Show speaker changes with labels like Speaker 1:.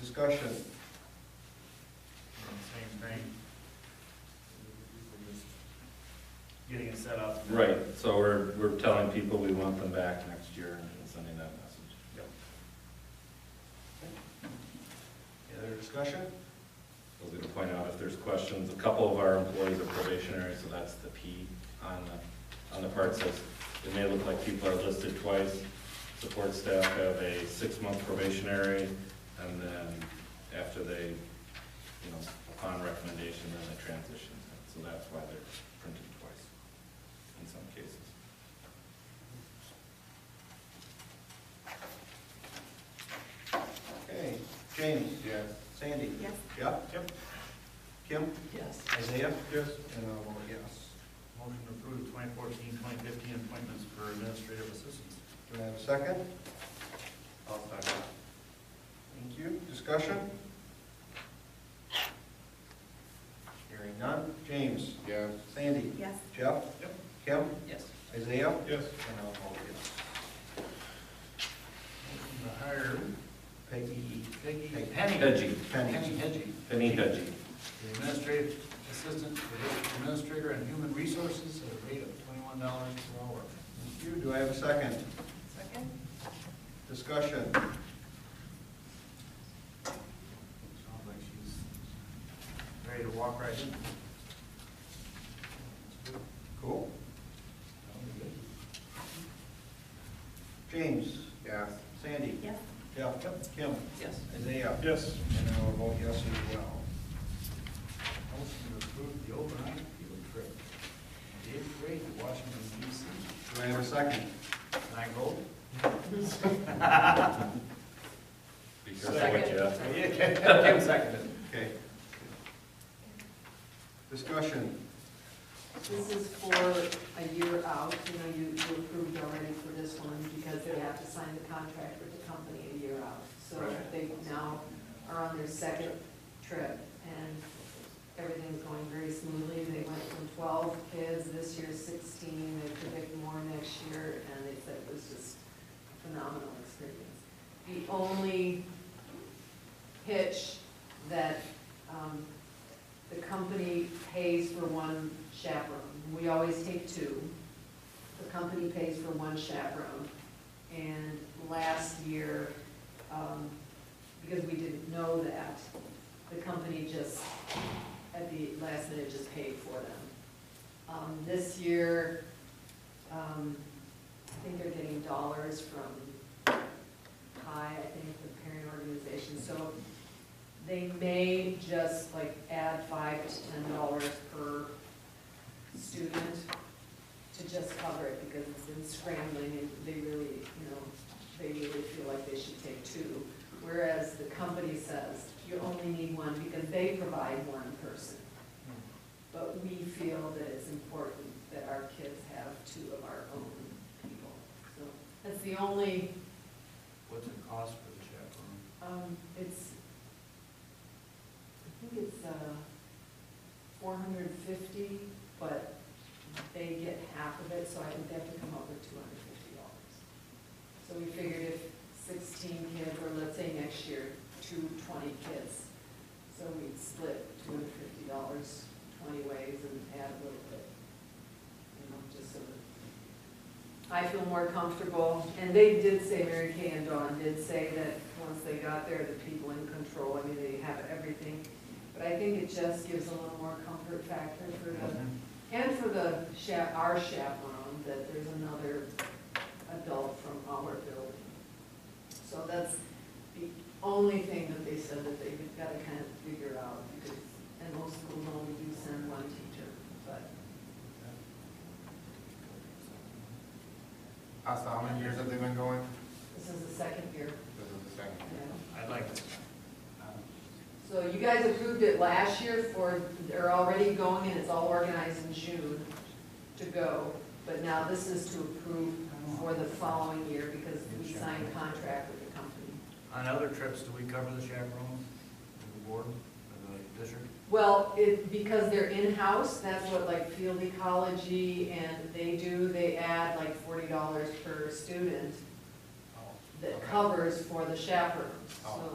Speaker 1: discussion?
Speaker 2: Same thing. We're just Getting it set up.
Speaker 3: Right, so we're, we're telling people we want them back next year and sending that message.
Speaker 1: Any other discussion?
Speaker 3: I was gonna point out if there's questions, a couple of our employees are probationary, so that's the P on the, on the part says, it may look like people are listed twice. Support staff have a six-month probationary, and then after they, you know, upon recommendation, then they transition. So that's why they're printed twice in some cases.
Speaker 1: Okay, James?
Speaker 2: Yes.
Speaker 1: Sandy?
Speaker 4: Yes.
Speaker 1: Jeff? Yep. Kim?
Speaker 4: Yes.
Speaker 1: Isaiah? Yes. And I vote yes.
Speaker 2: Motion to approve 2014, 2015 appointments for administrative assistants.
Speaker 1: Do I have a second?
Speaker 2: I'll second.
Speaker 1: Thank you. Discussion? Hearing none. James?
Speaker 2: Yes.
Speaker 1: Sandy?
Speaker 4: Yes.
Speaker 1: Jeff?
Speaker 2: Yep.
Speaker 1: Kim?
Speaker 4: Yes.
Speaker 1: Isaiah?
Speaker 2: Yes.
Speaker 1: And I'll vote yes.
Speaker 2: Motion to hire
Speaker 1: Peggy
Speaker 2: Peggy
Speaker 1: Peggy.
Speaker 2: Penny.
Speaker 3: Hedgie.
Speaker 1: Penny.
Speaker 2: Penny Hedgie,
Speaker 3: Penny Hedgie.
Speaker 2: the administrative assistant to the administrator and human resources at a rate of twenty-one dollars per hour.
Speaker 1: Thank you. Do I have a second?
Speaker 4: Second?
Speaker 1: Discussion?
Speaker 2: Sounds like she's ready to walk right in.
Speaker 1: Cool. James?
Speaker 2: Yes.
Speaker 1: Sandy?
Speaker 4: Yes.
Speaker 1: Jeff? Kim?
Speaker 4: Yes.
Speaker 1: Isaiah?
Speaker 2: Yes.
Speaker 1: And I will vote yes as well.
Speaker 2: Motion to approve the overnight field trip, from eighth grade to Washington DC.
Speaker 1: Do I have a second?
Speaker 2: Can I go?
Speaker 3: Be careful what you ask.
Speaker 2: Yeah, Kim seconded.
Speaker 1: Okay. Discussion?
Speaker 5: This is for a year out, you know, you you approved already for this one because they have to sign the contract with the company a year out. So
Speaker 2: Right.
Speaker 5: they now are on their second trip and everything's going very smoothly. They went from twelve kids, this year sixteen, they predict more next year, and they said it was just a phenomenal experience. The only hitch that um, the company pays for one chaperone. We always take two. The company pays for one chaperone. And last year, um, because we didn't know that, the company just, at the last minute, just paid for them. Um, This year, um, I think they're getting dollars from High, I think, the parent organization. So they may just like add five to ten dollars per student to just cover it, because it's been scrambling, and they really, you know, they really feel like they should take two. Whereas the company says, you only need one, because they provide one person. But we feel that it's important that our kids have two of our own people. So that's the only,
Speaker 2: What's it cost for the chaperone?
Speaker 5: um, it's, I think it's, uh, four hundred and fifty, but they get half of it, so I think they have to come up with two hundred and fifty dollars. So we figured if sixteen kids, or let's say next year, two twenty kids, so we'd split two hundred and fifty dollars twenty ways and add a little bit, you know, just so that I feel more comfortable, and they did say, Mary Kay and Dawn did say that once they got there, the people in control, I mean, they have everything. But I think it just gives a little more comfort factor for the, and for the chap, our chaperone, that there's another adult from our building. So that's the only thing that they said that they've got to kind of figure out, because, and most schools only do send one teacher, but
Speaker 6: How's how many years have they been going?
Speaker 5: this is the second year,
Speaker 6: This is the second year.
Speaker 5: you know.
Speaker 2: I'd like to. um,
Speaker 5: So you guys approved it last year for, they're already going and it's all organized in June to go. But now this is to approve for the following year because we signed contract with the company.
Speaker 2: On other trips, do we cover the chaperones, the board, or the district?
Speaker 5: Well, it, because they're in-house, that's what like field ecology and they do, they add like forty dollars per student that covers for the chaperones. So